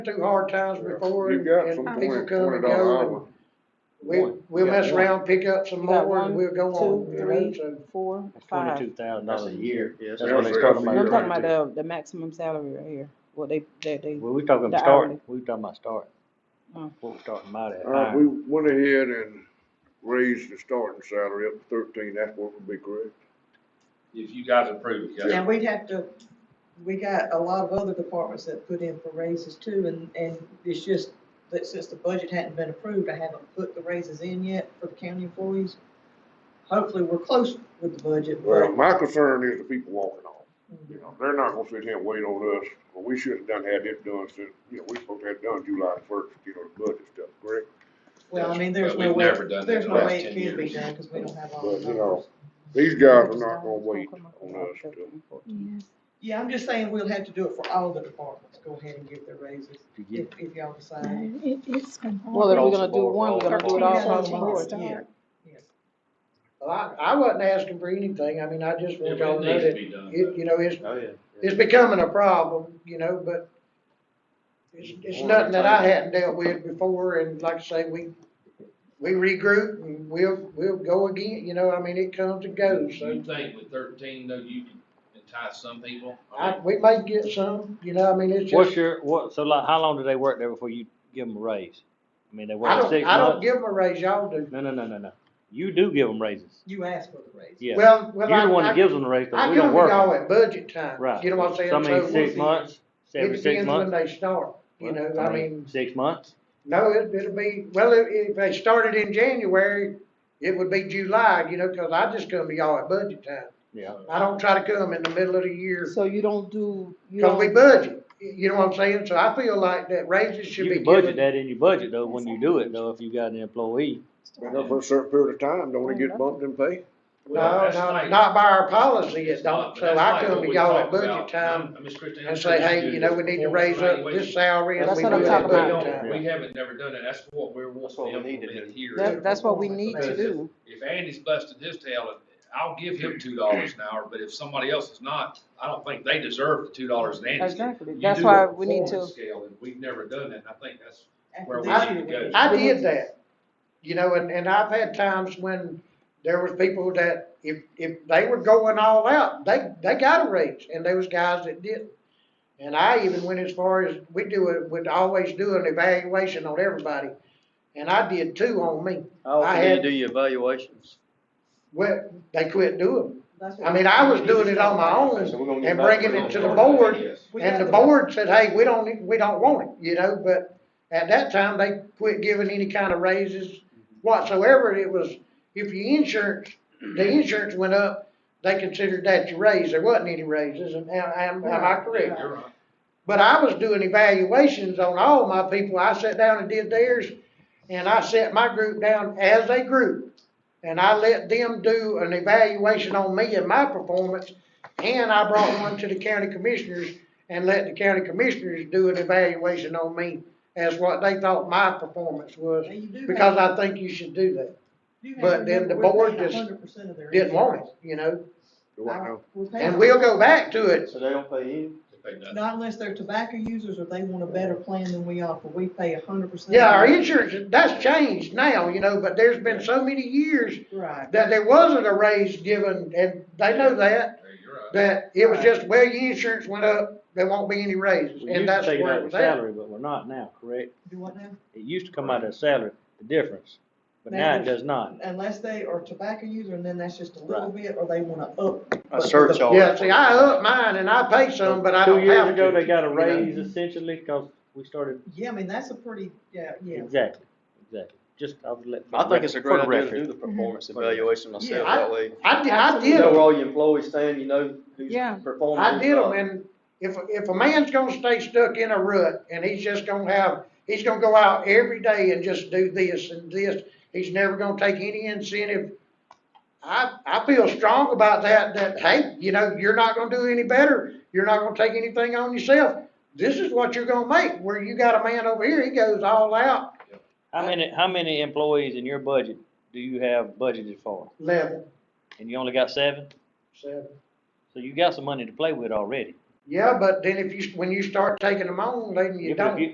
through hard times before You and got some and people twenty, come twenty and dollar go. and hour. We, One. we'll You got mess one. around, pick up some You got more and one, we'll go on, two, you know, three. so. four, five. Twenty-two thousand dollars a year. Yes, That's sir. what he's talking about. No, I'm talking Right about the, the maximum salary right here, what they, they, they, Well, we talking the start, hourly. we talking about start. Mm. What we starting about at. Uh, Alright. we went ahead and raised the starting salary up to thirteen, that's what would be correct. If you guys approve, it, yes. Now, we'd have to, we got a lot of other departments that put in for raises too, and, and it's just that since the budget hadn't been approved, I haven't put the raises in yet for the county employees. Hopefully, we're close with the budget, Well, but my concern is the people walking off, you know, they're not gonna sit here and wait on us, Well, we should've done, had this done since, you know, we supposed to have done July first, you know, the budget stuff, correct? Well, I mean, there's But we've no way, never done that there's in no the last way 10 it can be years. done, cause we don't have all But, the you know, numbers. these guys are not gonna wait on us to, Yeah, I'm just saying we'll have to do it for all the departments, go ahead and give their raises, To if, get- if y'all decide. It, it's been hard. well, if we're Across the gonna do board, one, we're gonna do it all across the Thirteen, board. fourteen, Yeah. Well, I, I wasn't asking for anything, I mean, I just want If y'all It to know needs to that, it, be done. you know, it's, Oh, yeah. it's becoming a problem, you know, but it's, it's nothing that I hadn't dealt with before, and like I say, we, we regroup and we'll, we'll go again, you know, I mean, it comes and goes, so. You think with thirteen, though, you can entice some people? I, we might get some, you know, I mean, it's What's just, your, what, so like, how long do they work there before you give them a raise? I mean, they I work don't, six I don't months? give them a raise, y'all do. No, no, no, no, no. You do give them raises, You asked for the raise. yeah. Well, You're well, the one I, that I, gives them the raise, I but come we don't to work. y'all it. at budget time, Right. you know what I'm saying? So I mean, So six months, It seven, six depends when months. they start, you know, I mean, Six months? no, it, it'll be, well, if, if they started in January, it would be July, you know, cause I just come to y'all at budget time. Yeah. I don't try to come in the middle of the year, So you don't do, you cause we don't, budget, you know what I'm saying? So I feel like that raises should You be can budget given. that in your budget though, when you do it though, if you got an employee. you know, for a certain period of time, don't they get bumped in pay? Well, No, that's no, like- not by our policy, It's it don't, not, but so that's I like come what to we y'all at talk budget about. time. Now, Miss Christine, I'm and sure say, you do hey, you know, we need to before raise up evaluation. this salary and That's we what I'm do that talking about. budget We time. don't, we haven't never done it, that's what we're wanting to implement here. that, that's what we need to do. If Andy's busting his tail, I'll give him two dollars an hour, but if somebody else is not, I don't think they deserve the two dollars that Andy's. getting. Exactly, You that's do why a we need to, performance Scale, and we've never done that, and I think that's, After Where this we year, should we go. need to- I did that, you know, and, and I've had times when there was people that if, if they were going all out, they, they got a raise, and there was guys that didn't. And I even went as far as, we do it, would always do an evaluation on everybody, and I did two on me. How I often do had- you do your evaluations? Well, they quit doing That's it. what I we mean, I was need to doing do. it on my own, So we're gonna get and back bringing it to the that. board, Yes. We And got the board said, hey, we don't, need- we don't want it, you know, but at that time, they quit giving any kind of raises whatsoever. It was, if your insurance, the insurance went up, they considered that your raise. There wasn't any raises, and am, am am I Yeah, correct? you're right. But I was doing evaluations on all my people. I sat down and did theirs, and I set my group down as a group. And I let them do an evaluation on me and my performance, and I brought one to the county commissioners and let the county commissioners do an evaluation on me as what they thought my performance was, Now, you do have- because I think you should do that. you have but to then the remember, we're board paying just 100% of their Didn't want insurance. it, you know, Do I know? We're paying and we'll go back to it. So they don't pay you? If they done. Not unless they're tobacco users or they want a better plan than we offer, we pay hundred percent. Yeah, our insurance, that's changed now, you know, but there's been so many years Right, that there wasn't a raise given, and they know that, Yeah, You're right. that it was just, well, your insurance went up, there won't be any raises, and We used to that's take it where out it of was at. salary, but we're not now, correct? do what now? It used to come out of salary, the difference, but now it does not. Unless they are tobacco user and then that's just a little bit, or they wanna up. A surcharge? Yeah, see, I up mine and I pay some, but I Two don't years have ago, to. they got a you know. raise essentially, cause we started, Yeah, I mean, that's a pretty, yeah, yeah. exactly, exactly, just, I was let. I think it's a great for the idea to do record. the performance evaluation myself Mm-hmm. I- that way. I did, I You did, know where 'em. all your employees stand, you know who's Yeah. performing. I who's did them, not. and if, if a man's gonna stay stuck in a rut, and he's just gonna have, he's gonna go out every day and just do this and this, he's never gonna take any incentive. I, I feel strong about that, that, hey, you know, you're not gonna do any better, you're not gonna take anything on yourself. This is what you're gonna make, where you got a man over here, he goes all out How many, how many employees in your budget do you have budgeted for? level, And you only got seven? so. So you got some money to play with already. Yeah, but then if you, when you start taking them on, then Yeah, you but if don't. you-